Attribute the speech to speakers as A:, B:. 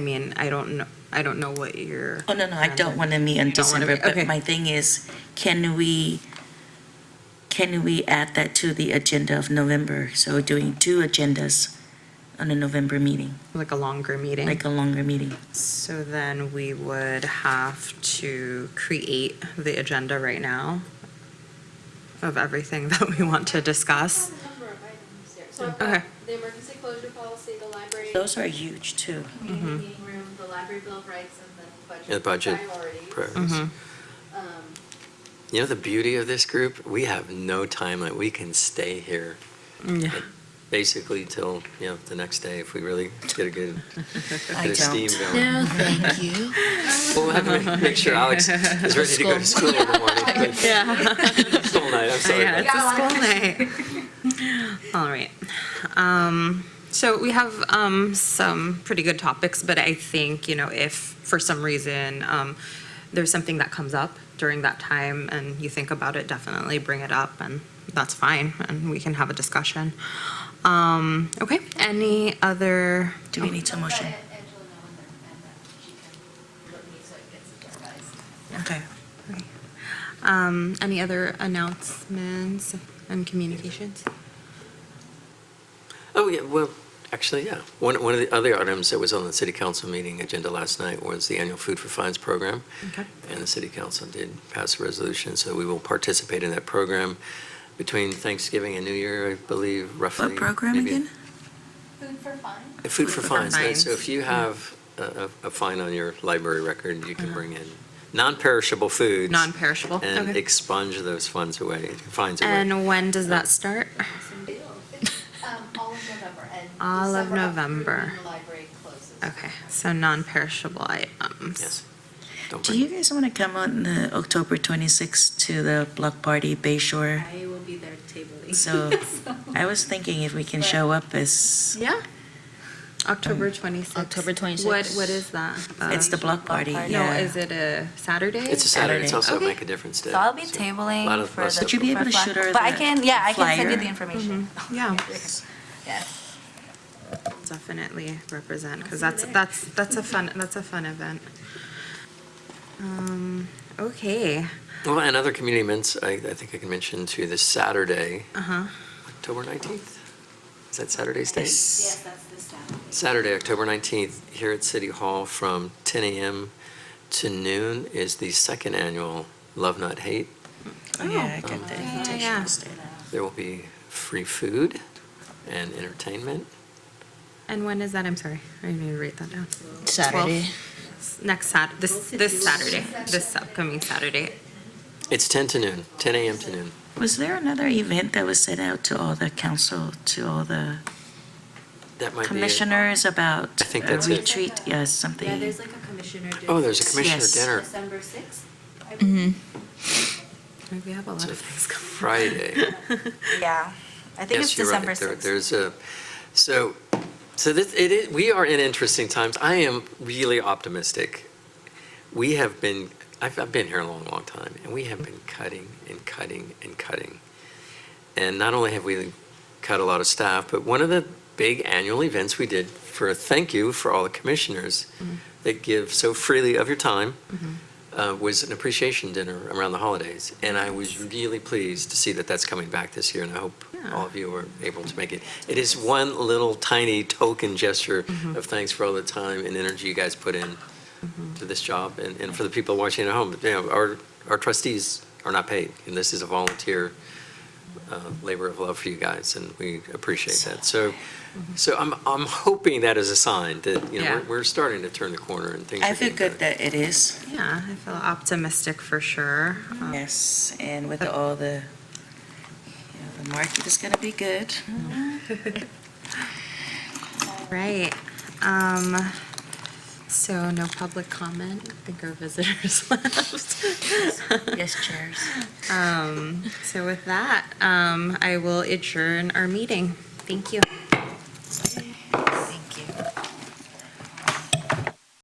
A: I mean, I don't know, I don't know what you're.
B: Oh, no, no, I don't want to meet in
A: You don't wanna
B: December,
A: meet, okay.
B: but my thing is, can we, can we add that to the agenda of November? So we're doing two agendas on the November meeting,
A: Like a longer meeting.
B: like a longer meeting.
A: So then we would have to create the agenda right now of everything that we want to
C: I
A: discuss.
C: have a number of items there. So I've
A: Okay.
C: got the emergency closure policy, the library,
B: Those are huge, too.
C: community
B: Mm-hmm.
C: meeting room, the library bill of rights, and
D: Yeah,
C: then
D: the budget
C: budget priorities.
D: priorities.
A: Mhm.
C: Um,
D: You know the beauty of this group? We have no time. Like we can stay here
A: Yeah.
D: basically till you know the next day if we really get a good
B: I
D: get a steam
B: don't.
D: going.
E: No, thank you.
D: Well, we'll have to make sure Alex is ready to go to school in the morning. but- School night. I'm sorry.
A: Yeah,
D: about
A: it's a school night. All right. Um, so we have um, some pretty good topics, but I think, you know, if for some reason um, there's something that comes up during that time and you think about it, definitely bring it up and that's fine and we can have a discussion. Um, okay, any other?
B: Do we need to motion?
F: Let Angela know when they're, and that she can look me so it gets advised.
B: Okay.
A: Um, any other announcements and communications?
D: Oh, yeah, well, actually, yeah. One, one of the other items that was on the city council meeting agenda last night was the annual food for fines program.
A: Okay.
D: And the city council did pass a resolution, so we will participate in that program between Thanksgiving and New Year, I believe, roughly.
B: What program
D: maybe-
B: again?
F: Food for fun?
D: Food for
A: For
D: fines, right? So
A: fines.
D: if you have a, a a fine on your library record,
B: Uh-huh.
D: you can bring in non-perishable foods.
A: Non-perishable,
D: And
A: okay.
D: expunge those funds away, fines away.
A: And when does that start?
F: Some deals. Um, all of November and.
A: All of
F: December up through
A: November.
F: when The library closes.
A: Okay, so non-perishable items.
D: Yes. Don't
B: Do
D: bring
B: you guys want to come on the October 26th to the block party Bay Shore?
G: I will be there tabling.
B: So I was thinking if we can show up as,
A: Yeah. October 26th.
E: October
A: What,
E: 26th.
A: what is that?
B: it's the block party,
A: Uh,
B: yeah.
A: No, is it a Saturday?
D: It's a Saturday,
B: Saturday.
D: it's also
A: Okay.
D: Make a Difference Day.
H: So I'll be
D: so
H: tabling
D: a lot of
H: for
D: us
H: the.
D: have-
B: Would you be able to
H: for fun.
B: shoot her
H: But I
B: the
H: can, yeah, I can send you
B: flyer? Mm-hmm.
H: the information.
A: Yeah,
H: Yeah.
A: definitely represent, because that's, that's, that's a fun, that's a fun event. Um, okay,
D: Well, and other community events, I, I think I can mention too, this Saturday,
A: uh-huh.
D: October 19th. Is that Saturday's date?
B: Yes.
F: that's the staff.
D: Saturday, October 19th, here at City Hall from 10 a.m. to noon is the second annual Love Not Hate.
B: Oh, Yeah, I got the
A: yeah,
B: invitation
A: yeah.
B: instead.
D: There will be free food and entertainment.
A: And when is that? I'm sorry, I need to write that down.
E: Saturday.
A: Twelve- Next Sat, this, this Saturday, this upcoming Saturday.
D: It's 10 to noon, 10 a.m. to noon.
B: Was there another event that was sent out to all the council, to all the
D: That might be. it.
B: commissioners about
D: I think
B: a
D: that's it.
B: retreat? Yes, something.
G: Yeah, there's like a commissioner.
D: Oh, there's a commissioner
B: Yes.
D: dinner.
G: December 6th.
D: Mm-hmm.
A: We have a lot
D: It's a
A: of things coming.
D: Friday.
H: Yeah. I think it's
D: Yes, you're right.
H: December
D: There-
H: 6th.
D: There's a, so, so this, it is, we are in interesting times. I am really optimistic. We have been, I've, I've been here a long, long time, and we have been cutting and cutting and cutting. And not only have we cut a lot of staff, but one of the big annual events we did for a thank you for all the commissioners that give so freely of your time uh, was an appreciation dinner around the holidays. And I was really pleased to see that that's coming back this year, and I hope
A: Yeah.
D: all of you are able to make it. It is one little tiny token gesture of thanks for all the time and energy you guys put in to this job, and, and for the people watching at home. You know, our, our trustees are not paid, and this is a volunteer uh, labor of love for you guys, and we appreciate that. So, so I'm, I'm hoping that is a sign that, you know,
A: Yeah.
D: we're, we're starting to turn the corner and things are
B: I feel
D: getting
B: good
D: better.
B: that it is,
A: Yeah, I feel optimistic for sure.
B: Mm-hmm.
A: Um,
B: yes, and with all the, you know, the market is going to be good.
A: Right. Um, so no public comment. I think our visitors left.
B: Yes, chairs.
A: Um, so with that, um, I will adjourn our meeting. Thank you.